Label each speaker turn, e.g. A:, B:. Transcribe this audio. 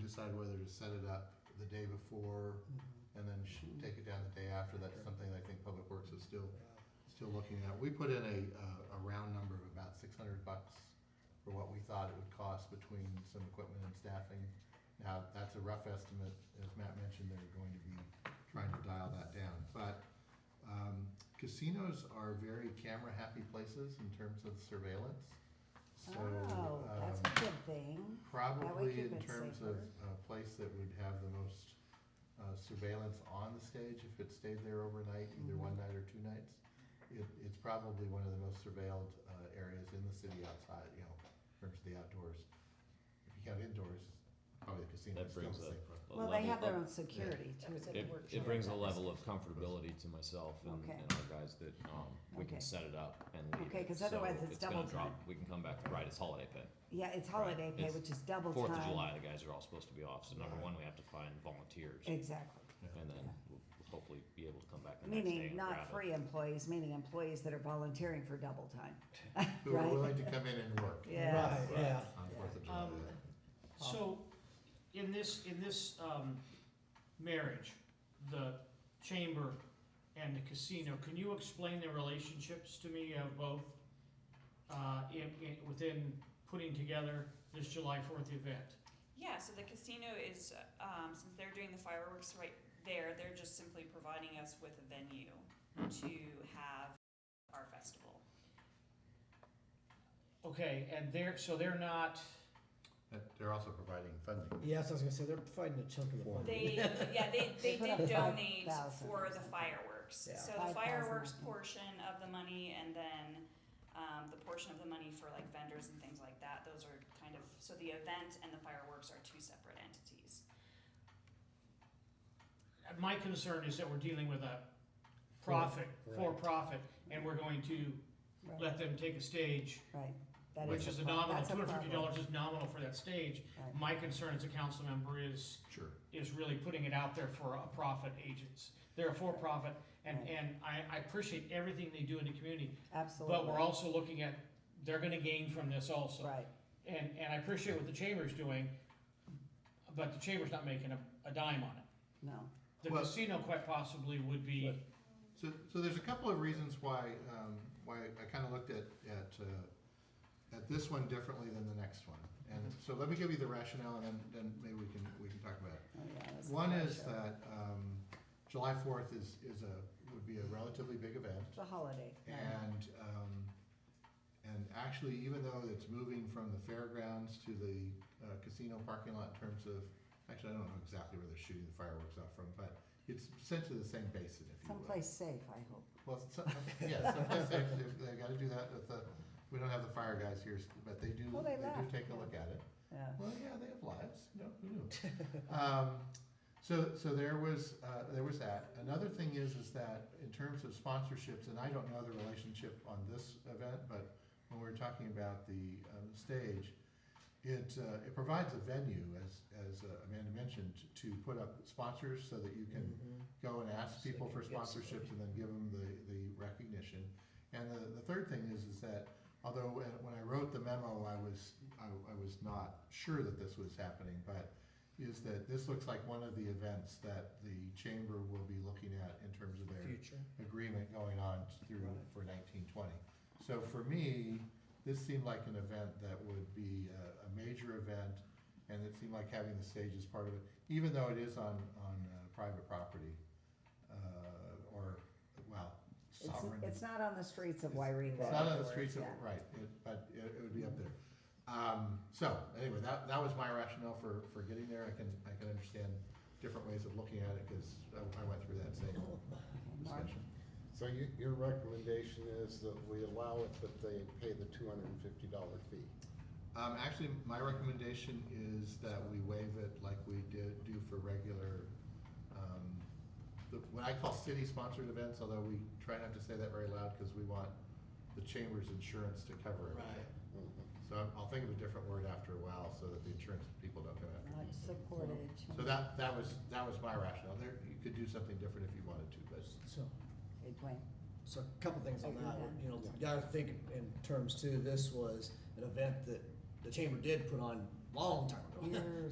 A: decide whether to set it up the day before and then sh-
B: Mm-hmm.
A: take it down the day after, that's something I think Public Works is still, still looking at. We put in a, uh, a round number of about six hundred bucks for what we thought it would cost between some equipment and staffing. Now, that's a rough estimate, as Matt mentioned, they're going to be trying to dial that down, but, um, casinos are very camera-happy places in terms of surveillance. So,
B: Oh, that's
A: um,
B: a good thing.
A: Probably
B: keep
A: in
B: it
A: terms of
B: safer.
A: a place that would have the most uh, surveillance on the stage if it stayed there overnight, either one night or two nights. It, it's probably one of the most surveilled uh, areas in the city outside, you know, in terms of the outdoors. If you got indoors, probably the casino
C: That
A: is still
C: brings
A: the
C: up-
A: safer.
C: a
B: Well, they
C: level
B: have their
C: of-
B: own security
D: That
B: too.
D: was at the
C: It,
D: workshop.
C: it brings a level of comfortability to myself and,
B: Okay.
C: and our guys that, um, we
B: Okay.
C: can set it up and leave it.
B: Okay, 'cause
C: So
B: otherwise it's
C: gonna
B: double
C: drop.
B: time.
C: We can come back, right, it's holiday pay.
B: Yeah, it's
C: Right.
B: holiday pay,
C: It's
B: which is double time.
C: Fourth of July, the guys are all supposed to be off, so number
A: Right.
C: one, we have to find volunteers.
B: Exactly.
C: And then
B: Yeah.
C: we'll we'll hopefully be able to come back the next day
B: Meaning
C: and
B: not
C: grab it.
B: free employees, meaning employees that are volunteering for double time.
A: Who are
B: Right.
A: willing to come in and work
B: Yeah.
E: Right, yeah.
A: on Fourth of July.
D: Um,
E: Um,
F: So, in this, in this, um, marriage, the chamber and the casino, can you explain the relationships to me of both? Uh, in, in, within putting together this July fourth event?
G: Yeah, so the casino is, um, since they're doing the fireworks right there, they're just simply providing us with a venue to have our festival.
F: Okay, and they're, so they're not,
A: And They're also providing funding.
E: Yes, I was gonna say, they're providing a chunk of the
A: Four.
E: fund.
G: They, yeah, they,
B: They
G: they
B: put up
G: did donate
B: 5,000 or
G: for the
B: something.
G: fireworks.
E: Yeah.
G: So
B: 5,000,
G: the fireworks
B: I think.
G: portion of the money and then, um, the portion of the money for like vendors and things like that, those are kind of, so the event and the fireworks are two separate entities.
F: my concern is that we're dealing with a profit,
E: Right.
F: for-profit, and we're going to
B: Right,
F: let them take a stage,
B: right. That
F: which is a nominal,
B: that's
F: two hundred fifty
B: problem.
F: dollars is nominal for that stage.
B: Right.
F: My concern as a council member is
A: Sure.
F: is really putting it out there for a profit agents. They're a for-profit, and,
B: Right.
F: and I, I appreciate everything they do in the community,
B: Absolutely.
F: but we're also looking at, they're gonna gain from this also.
B: Right,
F: And, and I appreciate what the chamber's doing, but the chamber's not making a, a dime on it.
B: no. oh,
F: The
A: Well-
F: casino quite possibly would be,
A: So, so there's a couple of reasons why, um, why I kind of looked at, at, uh, at this one differently than the next one. And
B: Mm-hmm.
A: so let me give you the rationale and then, then maybe we can, we can talk about it.
B: Oh, yeah, that's the
A: One is
B: pressure.
A: that, um, July fourth is, is a, would be a relatively big event.
B: It's a holiday. yeah.
A: And, um, and actually, even though it's moving from the fairgrounds to the uh, casino parking lot in terms of, actually, I don't know exactly where they're shooting the fireworks out from, but it's essentially the same basin, if you will.
B: Someplace safe, I hope.
A: Well, some, yeah, someplace they, they- they gotta do that with the, we don't have the fire guys here, but they do,
B: Well,
A: they
B: they
A: do
B: left,
A: take a
B: yeah.
A: look at it.
B: Yeah.
A: Well, yeah, they have lives, you know, who knew? Um, so, so there was, uh, there was that. Another thing is, is that in terms of sponsorships, and I don't know the relationship on this event, but when we were talking about the, um, stage, it, uh, it provides a venue, as, as uh, Amanda mentioned, to put up sponsors so that you can
E: Mhm.
A: go and ask
E: So
A: people
E: they
A: for
E: can get some-
A: sponsorships and then give them the, the recognition. And the, the third thing is, is that although when when I wrote the memo, I was, I, I was not sure that this was happening, but is that this looks like one of the events that the chamber will be looking at in terms of their
E: Future.
A: agreement going on through
E: Right.
A: for nineteen twenty. So for me, this seemed like an event that would be a, a major event, and it seemed like having the stage as part of it, even though it is on, on uh, private property, uh, or, well,
B: It's,
A: sovereign.
B: it's not on the streets of
A: It's-
B: Wairika.
A: It's not on the streets of,
B: Yeah.
A: right, it- but it, it would be up there. Um, so, anyway, that, that was my rationale for, for getting there, I can, I can understand different ways of looking at it, cause I, I went through that same
B: Mark?
A: discussion.
H: So you, your recommendation is that we allow it, but they pay the two hundred and fifty dollar fee?
A: Um, actually, my recommendation is that we waive it like we did, do for regular, um, the, what I call city-sponsored events, although we try not to say that very loud, cause we want the chamber's insurance to cover it.
E: Right.
H: Mm-hmm.
A: So I'm- I'll think of a different word after a while, so that the insurance people don't come after me.
B: Much supported.
A: So that, that was, that was my rationale, there, you could do something different if you wanted to, but.
E: So,
B: Hey, Dwayne.
E: so a couple things on
B: Okay,
E: that, one.
B: yeah.
E: you know, you gotta think in- in terms too, this was an event that the chamber did put on long time ago.
B: Years